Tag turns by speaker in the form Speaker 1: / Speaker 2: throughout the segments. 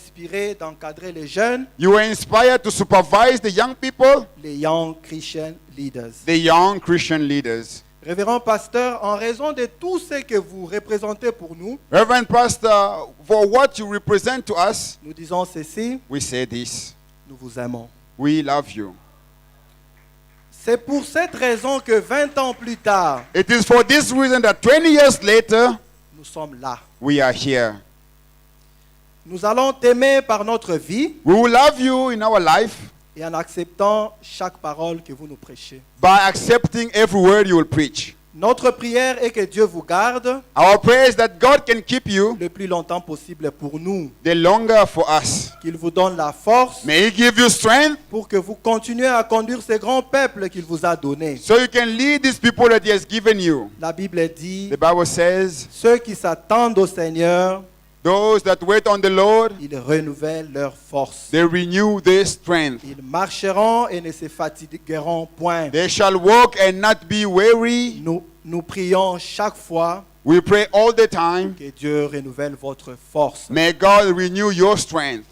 Speaker 1: inspiré d'encadrer les jeunes,
Speaker 2: You were inspired to supervise the young people,
Speaker 1: les Young Christian Leaders.
Speaker 2: the young Christian leaders.
Speaker 1: Révérend pasteur, en raison de tout ce que vous représentez pour nous,
Speaker 2: Reverend Pastor, for what you represent to us,
Speaker 1: nous disons ceci,
Speaker 2: we say this
Speaker 1: nous vous aimons.
Speaker 2: We love you.
Speaker 1: C'est pour cette raison que 20 ans plus tard,
Speaker 2: It is for this reason that 20 years later,
Speaker 1: nous sommes là.
Speaker 2: we are here.
Speaker 1: Nous allons t'aimer par notre vie
Speaker 2: We will love you in our life
Speaker 1: et en acceptant chaque parole que vous nous prêchez.
Speaker 2: by accepting every word you will preach.
Speaker 1: Notre prière est que Dieu vous garde
Speaker 2: Our prayer is that God can keep you
Speaker 1: le plus longtemps possible pour nous,
Speaker 2: the longer for us.
Speaker 1: qu'il vous donne la force
Speaker 2: May He give you strength
Speaker 1: pour que vous continuez à conduire ce grand peuple qu'il vous a donné.
Speaker 2: so you can lead these people that He has given you.
Speaker 1: La Bible dit,
Speaker 2: The Bible says,
Speaker 1: ceux qui s'attendent au Seigneur,
Speaker 2: Those that wait on the Lord,
Speaker 1: ils renouvellent leur force.
Speaker 2: they renew their strength.
Speaker 1: Ils marcheront et ne se fatigueront point.
Speaker 2: They shall walk and not be weary.
Speaker 1: Nous, nous prions chaque fois
Speaker 2: We pray all the time.
Speaker 1: que Dieu renouvelle votre force.
Speaker 2: May God renew your strength.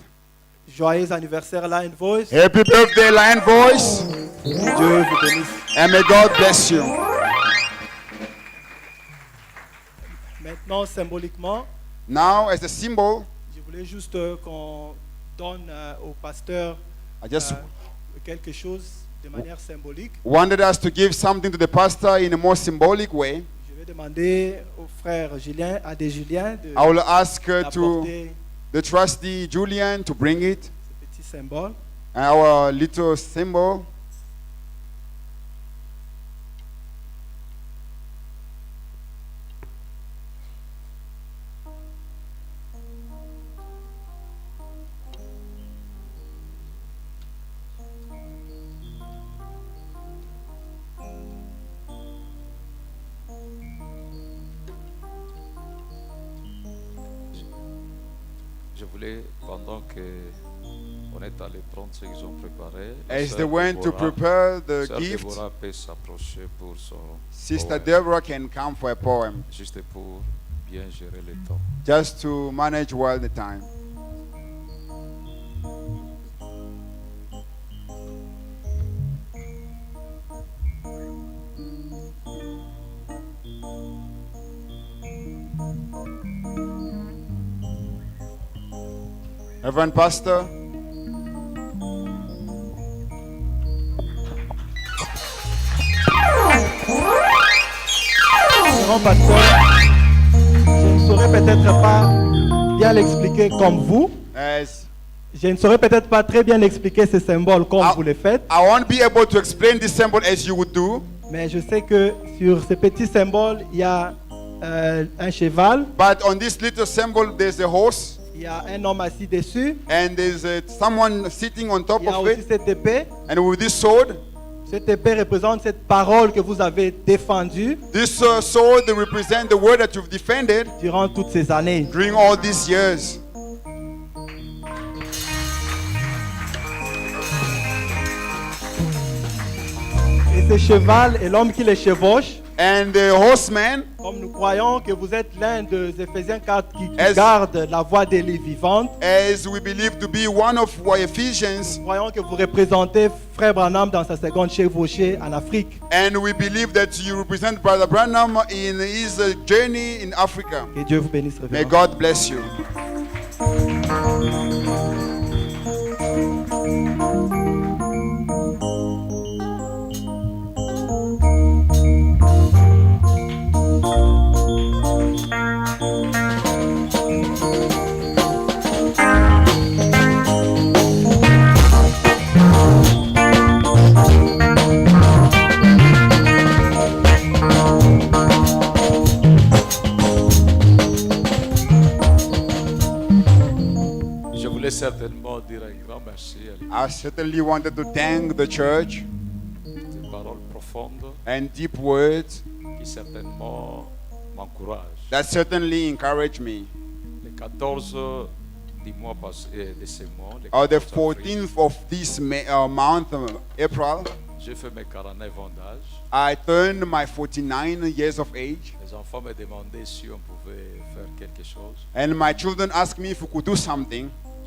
Speaker 1: Joyeux anniversaire Line Voice.
Speaker 2: Happy birthday, Lion Voice,
Speaker 1: Dieu vous bénisse.
Speaker 2: and may God bless you.
Speaker 1: Maintenant, symboliquement,
Speaker 2: Now, as a symbol,
Speaker 1: je voulais juste euh, qu'on donne euh, au pasteur
Speaker 2: I just
Speaker 1: euh, quelque chose de manière symbolique.
Speaker 2: wanted us to give something to the pastor in a more symbolic way.
Speaker 1: Je vais demander au frère Julien, à des Julien, de
Speaker 2: I will ask uh, to
Speaker 1: apporter
Speaker 2: the trustee Julian to bring it,
Speaker 1: ce petit symbole.
Speaker 2: our little symbol.
Speaker 3: Je voulais, pendant que on est allé prendre ce qu'ils ont préparé, la
Speaker 2: As
Speaker 3: sœur
Speaker 2: they went to
Speaker 3: Déborah-
Speaker 2: prepare the
Speaker 3: sœur
Speaker 2: gift,
Speaker 3: Déborah peut s'approcher pour son
Speaker 2: Sister
Speaker 3: poème,
Speaker 2: Deborah can come for a poem
Speaker 3: juste pour bien gérer le temps.
Speaker 2: just to manage well the time. Reverend Pastor,
Speaker 1: Grand pasteur, je ne saurais peut-être pas bien l'expliquer comme vous.
Speaker 2: as
Speaker 1: Je ne saurais peut-être pas très bien expliquer ces symboles comme
Speaker 2: Ah.
Speaker 1: vous le faites,
Speaker 2: I won't be able to explain this symbol as you would do,
Speaker 1: mais je sais que sur ces petits symboles, il y a euh, un cheval,
Speaker 2: but on this little symbol, there's a horse
Speaker 1: il y a un homme assis dessus,
Speaker 2: and there's a, someone sitting on top
Speaker 1: il y a
Speaker 2: of
Speaker 1: aussi
Speaker 2: it,
Speaker 1: cette épée.
Speaker 2: and with this sword,
Speaker 1: Cette épée représente cette parole que vous avez défendue
Speaker 2: This uh, sword they represent the word that you've defended
Speaker 1: durant toutes ces années.
Speaker 2: during all these years.
Speaker 1: Et ce cheval et l'homme qui les chevauche,
Speaker 2: And the horseman,
Speaker 1: comme nous croyons que vous êtes l'un des Éphésiens 4 qui, qui
Speaker 2: Est-ce-
Speaker 1: garde la voie des lits vivantes,
Speaker 2: as we believe to be one of our Ephesians,
Speaker 1: nous croyons que vous représentez Frère Branham dans sa seconde chevauchée en Afrique.
Speaker 2: and we believe that you represent Brother Branham in his uh, journey in Africa.
Speaker 1: Que Dieu vous bénisse,
Speaker 2: May
Speaker 1: révérend.
Speaker 2: God bless you.
Speaker 3: Je voulais certainement dire un grand merci à
Speaker 2: I certainly wanted to thank the church
Speaker 3: des paroles profondes
Speaker 2: and deep words
Speaker 3: qui certainement m'encouragent.
Speaker 2: that certainly encouraged me.
Speaker 3: Le 14 du mois passé, euh, de ce mois, le
Speaker 2: On the
Speaker 3: 14 avril,
Speaker 2: 14th of this ma- uh, month, uh, April,
Speaker 3: j'ai fait mes 49 ans d'âge.
Speaker 2: I turned my 49 years of age,
Speaker 3: Les enfants me demandaient si on pouvait faire quelque chose.
Speaker 2: and my children asked me if we could do something.